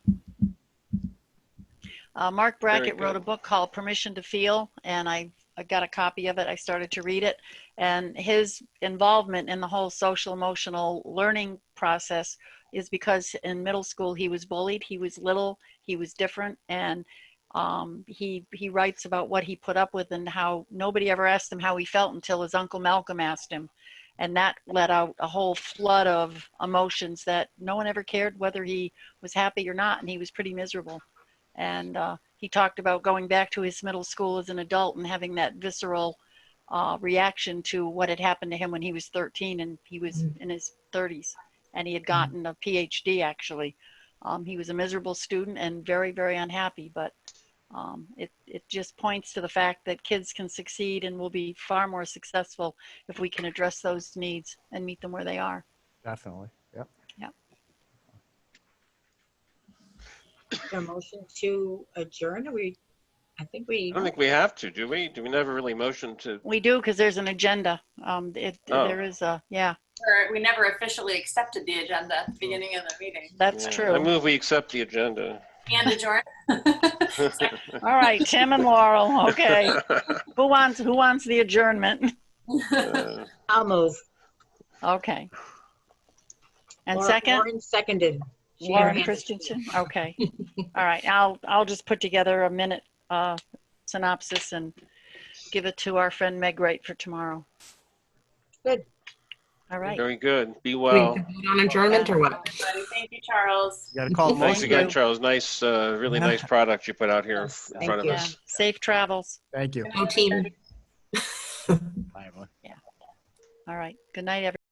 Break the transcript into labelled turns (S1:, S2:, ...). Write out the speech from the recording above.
S1: Uh, Mark Brackett wrote
S2: good.
S1: a book called Permission to Feel, and I, I got a copy of it. I started to read it. And his involvement in the whole social emotional learning process is because in middle school he was bullied. He was little, he was different, and um, he he writes about what he put up with and how nobody ever asked him how he felt until his uncle Malcolm asked him, and that let out a whole flood of emotions that no one ever cared whether he was happy or not, and he was pretty miserable. And uh, he talked about going back to his middle school as an adult and having that visceral uh, reaction to what had happened to him when he was 13 and he was in his 30s, and he had gotten a PhD actually. Um, he was a miserable student and very very unhappy, but um, it, it just points to the fact that kids can succeed and will be far more successful if we can address those needs and meet them where they are.
S3: Definitely. Yep.
S4: A motion to adjourn, Are we, I think we,
S2: I don't think we have to, do we? Do we never really motion to?
S1: We do because there's an agenda. Um, it,
S2: Oh.
S1: There is a, yeah,
S5: Or we never officially accepted the agenda at the beginning of the meeting.
S1: that's
S2: Yeah, I
S1: true.
S2: move we accept the agenda.
S5: And adjourn.
S1: All right, Tim and Laurel. Okay. who wants who wants the adjournment?
S2: Uh,
S4: I'll move.
S1: Okay. And
S4: Laura-
S1: second,
S4: Lauren seconded. She had her hand
S1: Lauren
S4: up.
S1: Christensen. Okay. All right. I'll I'll just put together a minute uh, synopsis and give it to our friend Meg Wright for tomorrow.
S4: Good.
S1: All right.
S2: Very good. Be
S6: Do we need
S2: well.
S6: to vote on adjournment or what?
S5: Everybody, Thank you, Charles.
S3: You got to call.
S1: Thank
S2: Thanks
S3: Lauren.
S2: again,
S1: you.
S2: Charles. Nice, uh, really
S3: Yeah.
S2: nice product you put out here in
S4: Yes,
S2: front
S4: thank
S2: of
S4: you.
S1: Yeah.
S2: us.
S1: Safe travels.
S3: Thank you.
S6: Go team.
S3: Bye, everyone.
S1: All right. Good night, everyone.